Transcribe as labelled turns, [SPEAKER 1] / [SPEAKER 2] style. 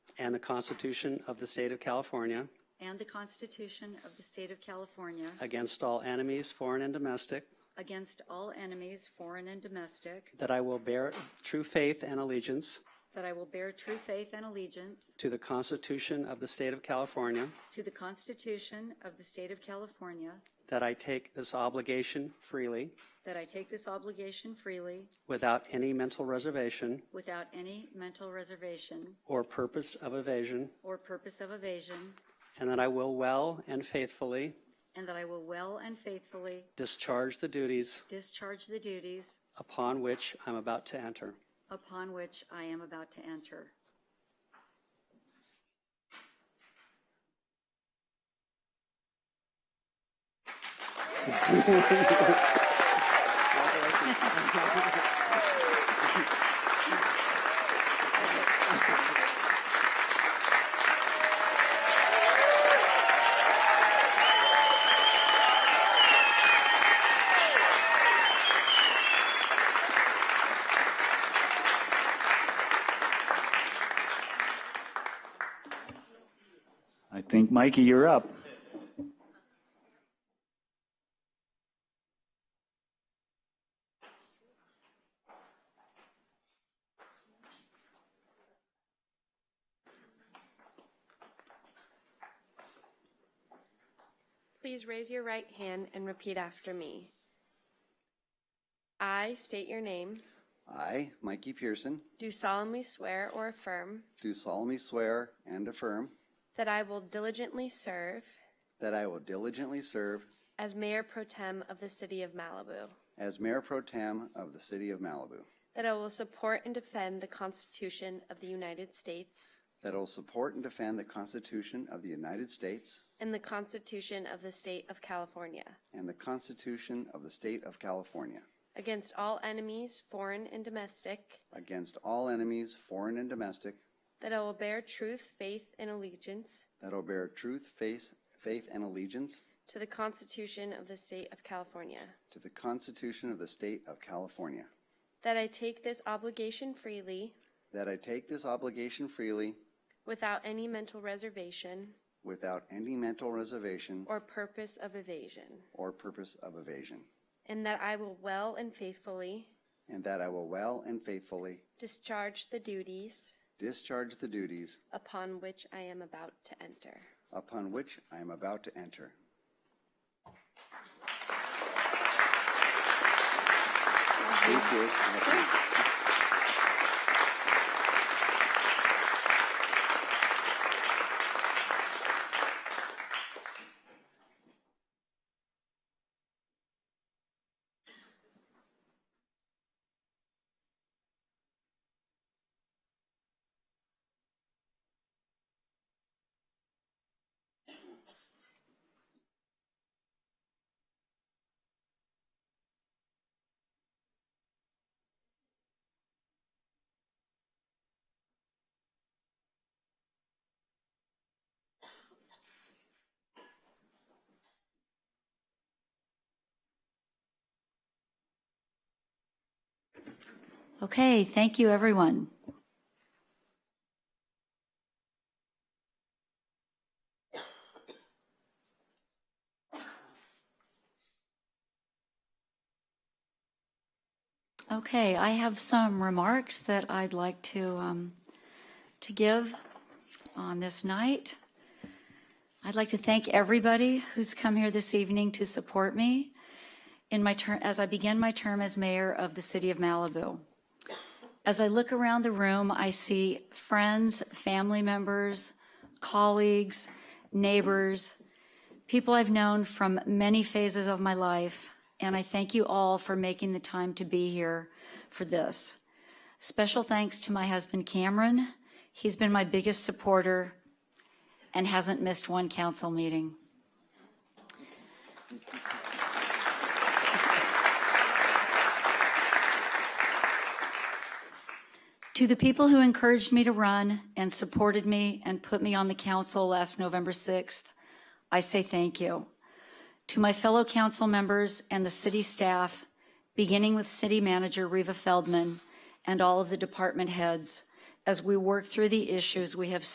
[SPEAKER 1] and the Constitution of the State of California
[SPEAKER 2] and the Constitution of the State of California
[SPEAKER 1] against all enemies, foreign and domestic,
[SPEAKER 2] against all enemies, foreign and domestic,
[SPEAKER 1] that I will bear true faith and allegiance
[SPEAKER 2] that I will bear true faith and allegiance
[SPEAKER 1] to the Constitution of the State of California,
[SPEAKER 2] to the Constitution of the State of California,
[SPEAKER 1] that I take this obligation freely
[SPEAKER 2] that I take this obligation freely
[SPEAKER 1] without any mental reservation
[SPEAKER 2] without any mental reservation
[SPEAKER 1] or purpose of evasion,
[SPEAKER 2] or purpose of evasion,
[SPEAKER 1] and that I will well and faithfully
[SPEAKER 2] and that I will well and faithfully
[SPEAKER 1] discharge the duties
[SPEAKER 2] discharge the duties
[SPEAKER 1] upon which I'm about to enter.
[SPEAKER 2] upon which I am about to enter.
[SPEAKER 3] I think, Mikey, you're up.
[SPEAKER 4] Please raise your right hand and repeat after me. I state your name,
[SPEAKER 5] I, Mikey Pearson,
[SPEAKER 4] do solemnly swear or affirm
[SPEAKER 5] do solemnly swear and affirm
[SPEAKER 4] that I will diligently serve
[SPEAKER 5] that I will diligently serve
[SPEAKER 4] as Mayor Pro Tem of the City of Malibu,
[SPEAKER 5] as Mayor Pro Tem of the City of Malibu,
[SPEAKER 4] that I will support and defend the Constitution of the United States
[SPEAKER 5] that I will support and defend the Constitution of the United States
[SPEAKER 4] and the Constitution of the State of California
[SPEAKER 5] and the Constitution of the State of California
[SPEAKER 4] against all enemies, foreign and domestic,
[SPEAKER 5] against all enemies, foreign and domestic,
[SPEAKER 4] that I will bear truth, faith, and allegiance
[SPEAKER 5] that I will bear truth, faith, faith and allegiance
[SPEAKER 4] to the Constitution of the State of California.
[SPEAKER 5] to the Constitution of the State of California,
[SPEAKER 4] That I take this obligation freely,
[SPEAKER 5] that I take this obligation freely
[SPEAKER 4] without any mental reservation
[SPEAKER 5] without any mental reservation
[SPEAKER 4] or purpose of evasion.
[SPEAKER 5] or purpose of evasion,
[SPEAKER 4] And that I will well and faithfully
[SPEAKER 5] and that I will well and faithfully
[SPEAKER 4] discharge the duties
[SPEAKER 5] discharge the duties
[SPEAKER 4] upon which I am about to enter.
[SPEAKER 5] upon which I am about to enter. Thank you.
[SPEAKER 2] Okay, thank you, everyone. Okay, I have some remarks that I'd like to, um, to give on this night. I'd like to thank everybody who's come here this evening to support me in my term, as I begin my term as mayor of the city of Malibu. As I look around the room, I see friends, family members, colleagues, neighbors, people I've known from many phases of my life, and I thank you all for making the time to be here for this. Special thanks to my husband Cameron. He's been my biggest supporter and hasn't missed one council meeting. To the people who encouraged me to run and supported me and put me on the council last November 6th, I say thank you. To my fellow council members and the city staff, beginning with City Manager Reva Feldman and all of the department heads, as we work through the issues we have